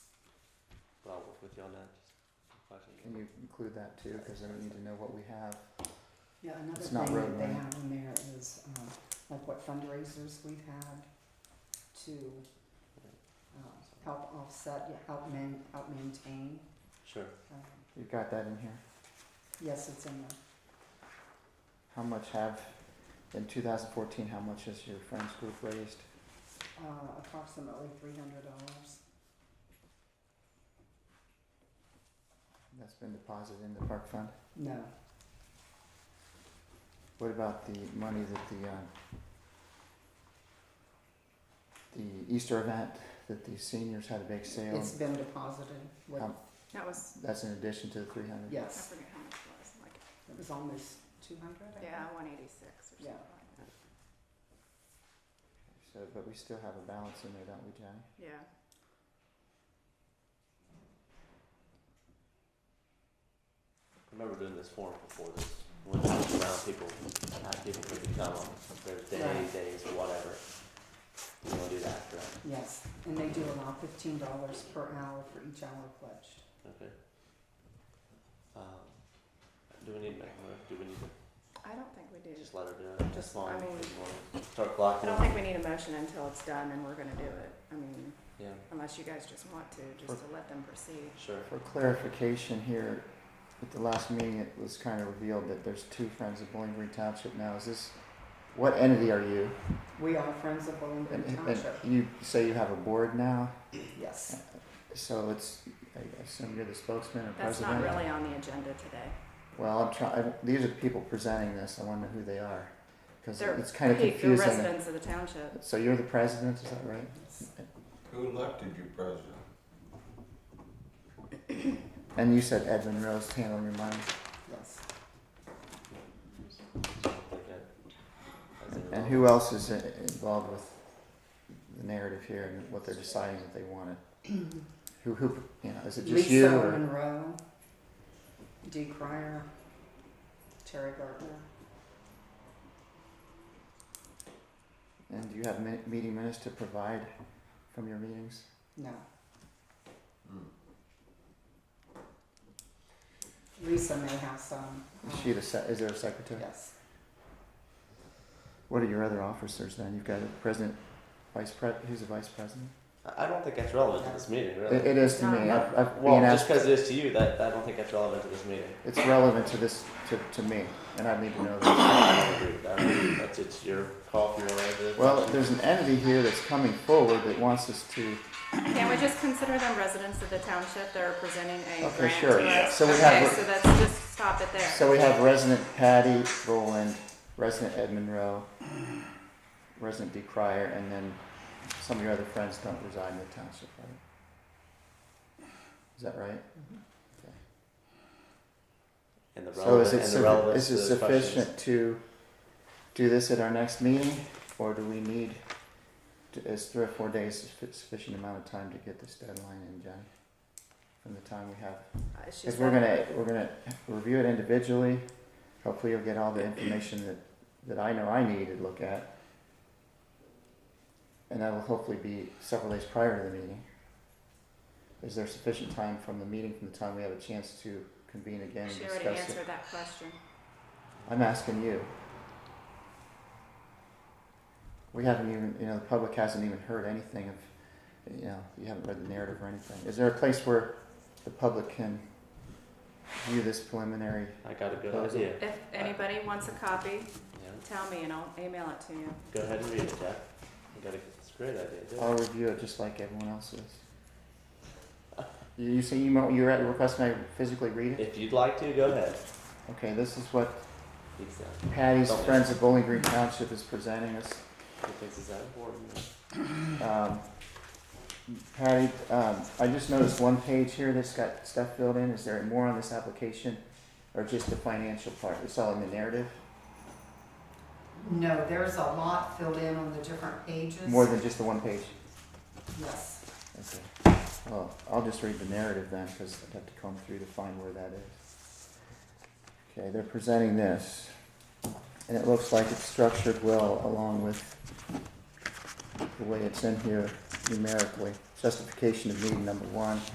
with you on that, just some questions. Can you include that too? Because then we need to know what we have. Yeah, another It's thing not road that they money. have in there is, um, like what fundraisers we've had to, um, help offset, yeah, help man, help maintain. Sure. Um, You've got that in here. Yes, it's in there. How much have, in 2014, how much has your friends group raised? Uh, approximately three hundred dollars. That's been deposited in the park fund. No, What about the money that the, uh, the Easter event that the seniors had a big sale? it's been deposited with, Um, That was, That's in addition to the 300? I yes, forget how much it was, like, it was almost two hundred, I think. yeah, one eighty-six or something Yeah. like that. So, but we still have a balance in there, don't we, Jenny? Yeah, I remember doing this forum before this, when it was around people, had people who could come on Thursday, Right. days, or whatever. You wanna do that, correct? Yes, and they do allow fifteen dollars per hour for each hour pledged. Okay. Um, do we need to make a move? Do we need to I don't think we do. just let her do it? Just- Come on, I mean- come on. Start I blocking don't them. think we need a motion until it's done and we're gonna do it. I mean, Yeah, unless you guys just want to, just to let them proceed. sure. For clarification here, at the last meeting, it was kind of revealed that there's two Friends of Bowling Green Township now. Is this, what entity are you? We are Friends of Bowling Green And, and- and Township, you say you have a board now, yes. so it's, I assume you're the spokesman or That's president? not really on the agenda today. Well, I'm trying, these are the people presenting this, I wanna know who they are, cause They're it's kinda Hey, You're confusing. residents of the township. So you're the president, is that right? Who elected you president? And you said Edwin Rose, hand on your mind, Yes, Like that. As in- and who else is i- involved with the narrative here and what they're deciding that they wanted? Who, who, you know, is it just you Lisa or, Monroe, Dee Cryer, Terry Gardner. and do you have mi- meeting minutes to provide from your meetings? No, Hmm. Lisa may have some. Is um, she the, se- is there a secretary? Yes, What are your other officers then? You've got a president, vice pres, who's the vice president? I I don't think that's relevant to this meeting, really. It, it is to me, I've, I've Well, been just asked because it is to you, that, I don't think that's relevant to this meeting. It's relevant to this, to, to me, and I need to know this. I don't agree with that. That's, it's your call for your residents. Well, there's an entity here that's coming forward that wants us to, Can't we just consider them residents of the township? They're presenting a Okay, grant sure. to us. So we have- Okay, so that's, just stop it there. so we have resident Patty Boland, resident Ed Monroe, resident Dee Cryer, and then some of your other friends don't reside in the township, right? Is that right? And the So is relevant, it, and the suffi- relevance is to it the questions. sufficient to do this at our next meeting, or do we need, to- is three or four days suffi- sufficient amount of time to get this deadline in, Jenny? From the time we have Uh, she's Because we're got- gonna, we're gonna review it individually, hopefully you'll get all the information that, that I know I need to look at. And that will hopefully be several days prior to the meeting. Is there sufficient time from the meeting, from the time we have a chance to convene again and She already discuss it? answered that question. I'm asking you. We haven't even, you know, the public hasn't even heard anything of, you know, you haven't read the narrative or anything. Is there a place where the public can view this preliminary I got a good idea. If anybody wants a copy, Yeah, tell me and I'll email it to you. go ahead and read it, Jack. You got a, it's a great idea, dude. I'll review it just like everyone else is. You, you say you, mo- you're at requesting I physically read it? If you'd like to, go ahead. Okay, this is what He thinks that, Patty's Don't Friends of Bowling Green Township is presenting us. he thinks it's that important. Um, Patty, um, I just noticed one page here that's got stuff filled in. Is there more on this application? Or just the financial part? It's all in the narrative? no, there's a lot filled in on the different pages. More than just the one page? Yes, Okay. Well, I'll just read the narrative then, because I'd have to comb through to find where that is. Okay, they're presenting this, and it looks like it's structured well along with the way it's in here numerically. Justification of need number one,